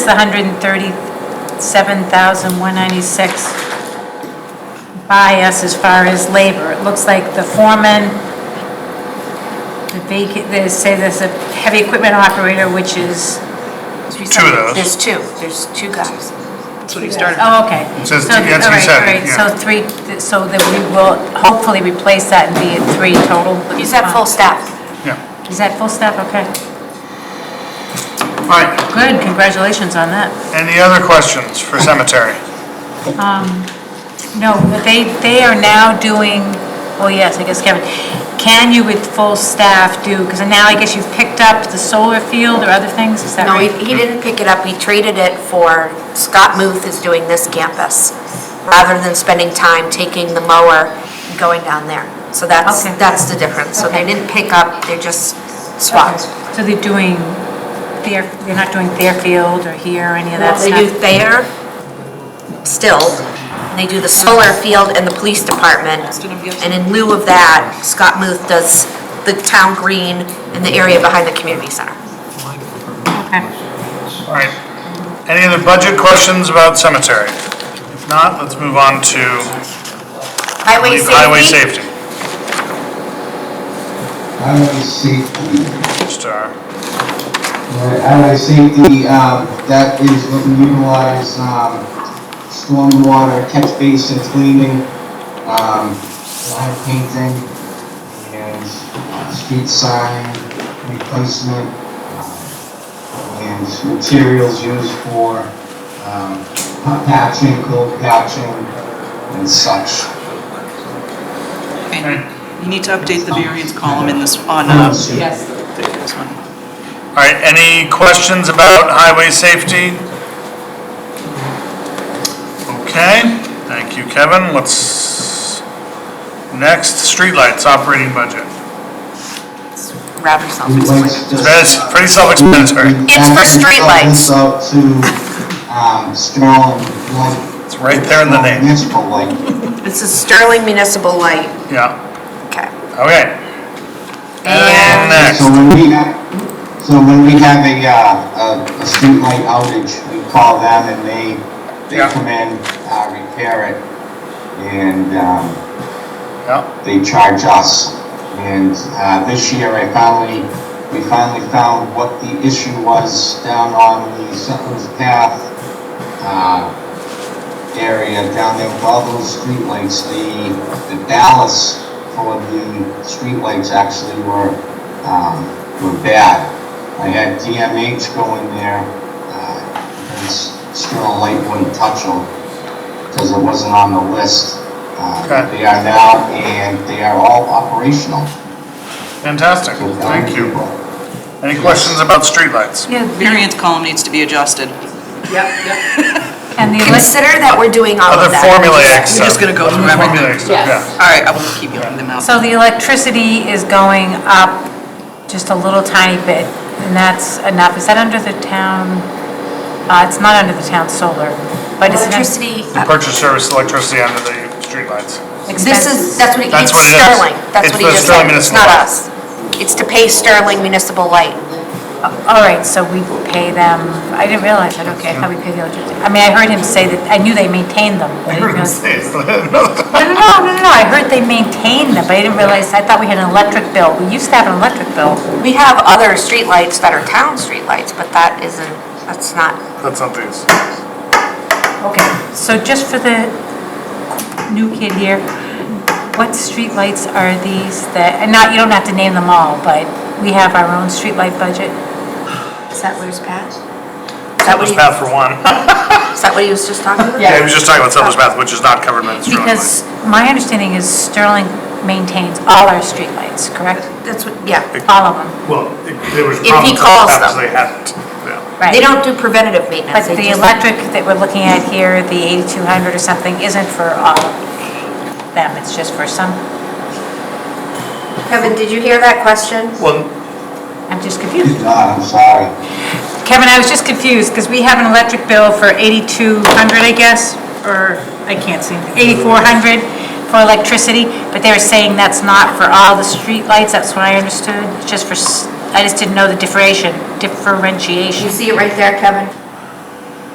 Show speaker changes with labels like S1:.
S1: It's 137,196 by us as far as labor. It looks like the foreman, the vacant, they say there's a heavy equipment operator, which is...
S2: Two of those.
S1: There's two, there's two guys.
S3: That's what he started.
S1: Oh, okay.
S2: It says
S1: So,
S2: two- that's what he
S1: all right,
S2: said,
S1: all right. So
S2: yeah.
S1: three, so that we will hopefully replace that and be at three total.
S4: He's at full staff.
S2: Yeah,
S1: Is that full staff? Okay.
S2: all right,
S1: Good, congratulations on that.
S2: any other questions for cemetery?
S1: No, they, they are now doing, oh yes, I guess Kevin, can you with full staff do, because now I guess you've picked up the solar field or other things, is that
S4: No, he,
S1: right?
S4: he didn't pick it up, he traded it for, Scott Muth is doing this campus, rather than spending time taking the mower and going down there. So that's,
S1: Okay.
S4: that's the difference, so they
S1: Okay.
S4: didn't pick up, they just swapped.
S1: So they're doing their, they're not doing their field or here or any of that
S4: They do
S1: stuff?
S4: there, still, and they do the solar field and the police department. And in lieu of that, Scott Muth does the town green and the area behind the community center.
S1: Okay.
S2: All right, any other budget questions about cemetery? If not, let's move on to
S4: Highway safety?
S2: highway safety.
S5: Highway safety,
S2: Star,
S5: Right, highway safety, um, that is what we utilize, um, stormwater catch basin cleaning, um, line painting, and uh, street sign replacement, um, and materials used for, um, hot patching, cold patching, and such.
S3: You need to update the variance column in this, on, uh, this one.
S2: all right, any questions about highway safety? Okay, thank you, Kevin, let's, next, streetlights operating budget.
S4: Wrap yourself in
S5: We'd like
S4: sleep.
S5: to just-
S2: That's pretty self-explanatory.
S4: It's for streetlights.
S5: So to, um, strong light.
S2: It's right there in the name.
S5: Municipal light.
S4: This is Sterling Municipal Light.
S2: Yeah,
S4: Okay.
S2: okay.
S4: And-
S2: Next,
S5: So when we have, so when we have a, uh, a, a streetlight outage, we call them and they, they
S2: Yeah.
S5: come in, uh, repair it. And, um,
S2: yeah,
S5: they charge us. And uh, this year, I finally, we finally found what the issue was down on the Sutton's Path uh, area, down there with all those streetlights. The, the ballast for the streetlights actually were, um, were bad. I had DMH go in there, uh, and s- still light wouldn't touch them because it wasn't on the list. Uh,
S2: Okay.
S5: They are now, and they are all operational.
S2: fantastic,
S5: So,
S2: thank you.
S5: people.
S2: Any questions about streetlights?
S1: Yeah,
S3: Variance column needs to be adjusted.
S1: and the elec-
S4: Consider that we're doing all
S2: Other
S4: of that.
S2: formulaic stuff.
S3: You're just gonna go through
S2: Other
S3: everything.
S2: formulaic stuff, yeah.
S3: All right, I will keep yelling them out.
S1: so the electricity is going up just a little tiny bit, and that's enough. Is that under the town? Uh, it's not under the town solar, but it's...
S4: Electricity, uh,
S2: The purchase service electricity under the streetlights.
S4: this is, that's what, he-
S2: That's
S4: it's
S2: what it is.
S4: Sterling. That's
S2: It's
S4: what he
S2: for
S4: just
S2: Sterling
S4: said. It's
S2: Municipal
S4: not
S2: Light.
S4: us. It's to pay Sterling Municipal Light.
S1: All right, so we pay them, I didn't realize that, okay, I thought we paid the electricity. I mean, I heard him say that, I knew they maintained them. but I didn't realize- No, no, no, no, no, I heard they maintained them, but I didn't realize, I thought we had an electric bill. We used to have an electric bill.
S4: We have other streetlights that are town streetlights, but that isn't, that's not,
S2: That's not these.
S1: Okay, so just for the new kid here, what streetlights are these that, and not, you don't have to name them all, but we have our own streetlight budget?
S4: is that where's Pat? Is that what
S2: Settlers
S4: he,
S2: Path for one.
S4: is that what he was just talking about?
S2: Yeah, he was just talking about Settlers Path, which is not covered by the streetlights.
S1: Because my understanding is Sterling maintains all our streetlights, correct?
S4: That's what, yeah.
S1: All of them,
S2: Well, it- there was
S4: If he
S2: problems
S4: calls
S2: after
S4: them.
S2: they hadn't, yeah.
S1: right?
S4: They don't do preventative
S1: But
S4: maintenance. They
S1: the
S4: just-
S1: electric that we're looking at here, the 8,200 or something, isn't for all of them, it's just for some,
S4: Kevin, did you hear that question?
S2: Well,
S1: I'm just confused.
S5: Did not, Uh, I'm sorry.
S1: Kevin, I was just confused, because we have an electric bill for 8,200, I guess, or, I can't see, 8,400 for electricity, but they were saying that's not for all the streetlights, that's what I understood, It's just for, s- I just didn't know the differentiation,
S4: Do you
S1: differentiation.
S4: see it right there, Kevin?